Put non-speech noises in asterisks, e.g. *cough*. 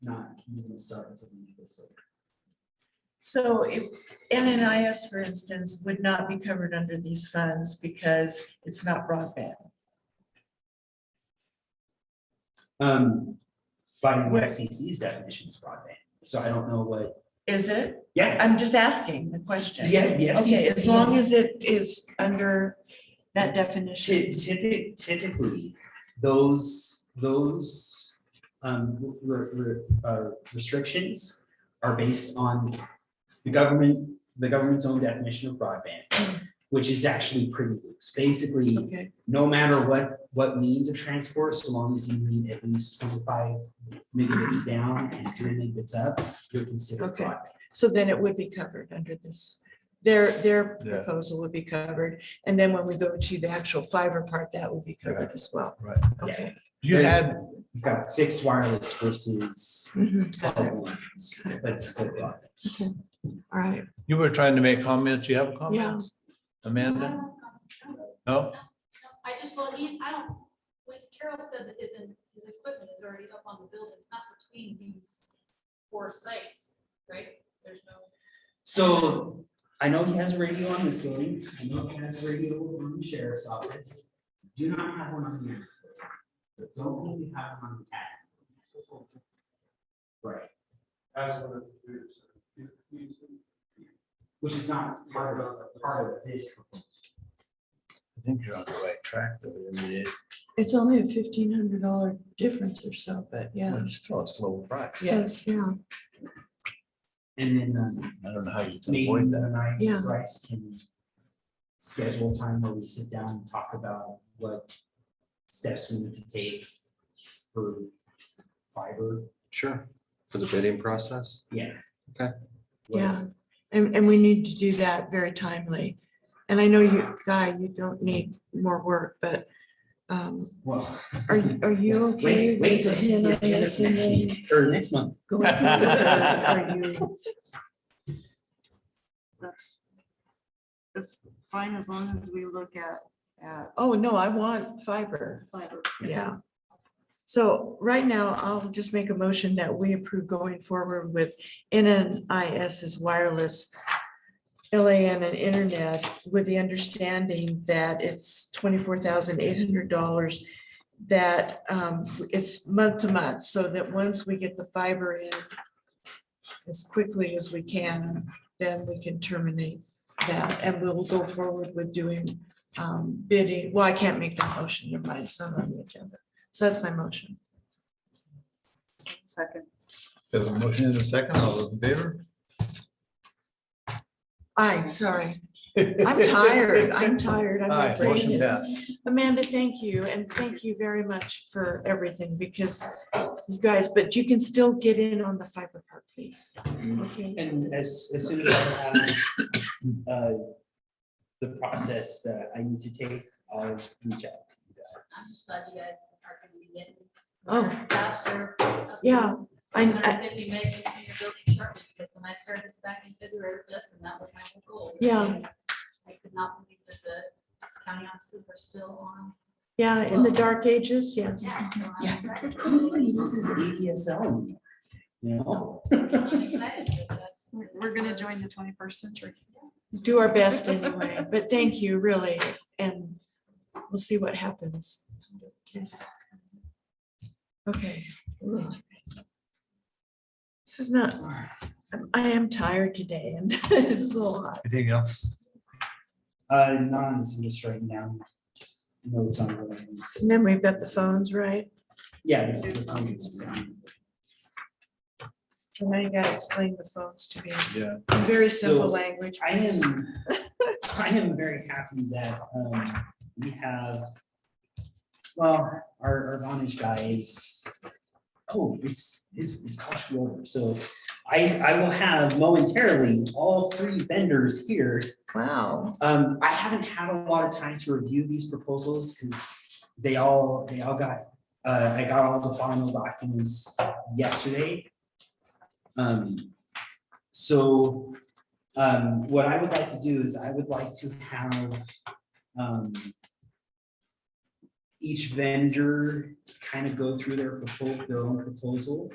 not even start until the end of this. year. So if NNIS, for instance, would not be covered under these funds because it's not broadband. Um, by the Where- FCC's definition is broadband, so I don't know what, Is it? yeah, I'm just asking the question. yeah, the E Okay, as long FCC's as it is under that Ty- definition. typi- Typically, those, those um, re- re- uh, restrictions are based on the government, the government's own definition of broadband, Mm. which is actually pretty loose. Basically, Okay, no matter what, what means of transport, so long as you need at least twenty-five megabits down and three megabits up, you're considered Okay. broadband. so then it would be covered under this. Their, their Yeah. proposal would be covered. And then when we go to the actual fiber part, that would be covered as well. Right. Okay. You had, You've got fixed wireless versus Mhm, got it. mobile ones, but it's still broadband. All right, you were trying to make comments. You have yeah. comments? Amanda? No? I just, well, he, I don't, when Carol said that his, his equipment is already up on the building, it's not between these four sites, right? There's no, So I know he has a radio on this building. I know he has a radio on the sheriff's office. Do not have one on the next. building. Don't need to have one on the cat. Right, That's one of the computers. that you use. which is not part of, part of this. proposal. I think you're on the right track though. I mean, it- It's only a fifteen hundred dollar difference or so, but yeah, It's still a slow price. yes, yeah, And then um, I don't know how you can maybe avoid that. the night Yeah. Bryce can schedule time where we sit down and talk about what steps we need to take for fiber. Sure, for the bidding process? Yeah. Okay. yeah. And, and we need to do that very timely. And I know you, Guy, you don't need more work, but um, Well. are, you- are you *laughs* Wait- okay? Wait with till see the agenda NIS for and next then week, or next month. *laughs* going through it, or Are you, that's, that's fine as long as we look at, at oh, no, I want fiber, fiber. yeah. So right now, I'll just make a motion that we approve going forward with NNIS's wireless LAN and internet with the understanding that it's twenty-four thousand eight hundred dollars. That um, it's month to month, so that once we get the fiber in as quickly as we can, then we can terminate that and we'll go forward with doing um, bidding. Well, I can't make that motion, never mind, it's not on the agenda. So that's my motion. Second, There's a motion in a second. All those in favor? I'm sorry. *laughs* I'm tired. I'm tired. I'm Aye, not motion brain is- passed. Amanda, thank you, and thank you very much for everything, because you guys, but you can still get in on the fiber part, please. Okay, *laughs* And as, as soon as I have, uh, the process that I need to take, I'll reach out to you guys. I'm just glad you guys are gonna be getting. Oh. Faster. yeah, I, I, Hundred fifty meg in your building shortly, because when I started this back in February, this, and that was my whole goal. Yeah. I could not believe that the county offices are still on. yeah, in the dark ages, yes. Yeah. so I'm Yeah. excited. Nobody uses ADSL anymore, you know? I'm excited that that's- *laughs* we're, we're gonna join the twenty-first century. Do our best anyway, but thank you, really, and we'll see what happens. Okay. This is not, I'm- I am tired today and *laughs* it's a little hot. Anything else? *laughs* Uh, not on this, I'm just writing down notes on what I need to- And then we've got the phones, right? Yeah. the- the comments. And I gotta explain the phones to me Yeah. in very simple So, language. I am, I am very happy that, um, we have, well, our, our Vonage guy is, oh, it's, it's, it's Kosh Roller, so I, I will have momentarily all three vendors here. Wow. Um, I haven't had a lot of time to review these proposals, because they all, they all got, uh, I got all the final documents yesterday. Um, so, um, what I would like to do is I would like to have, um, each vendor kind of go through their proposal, their own proposal.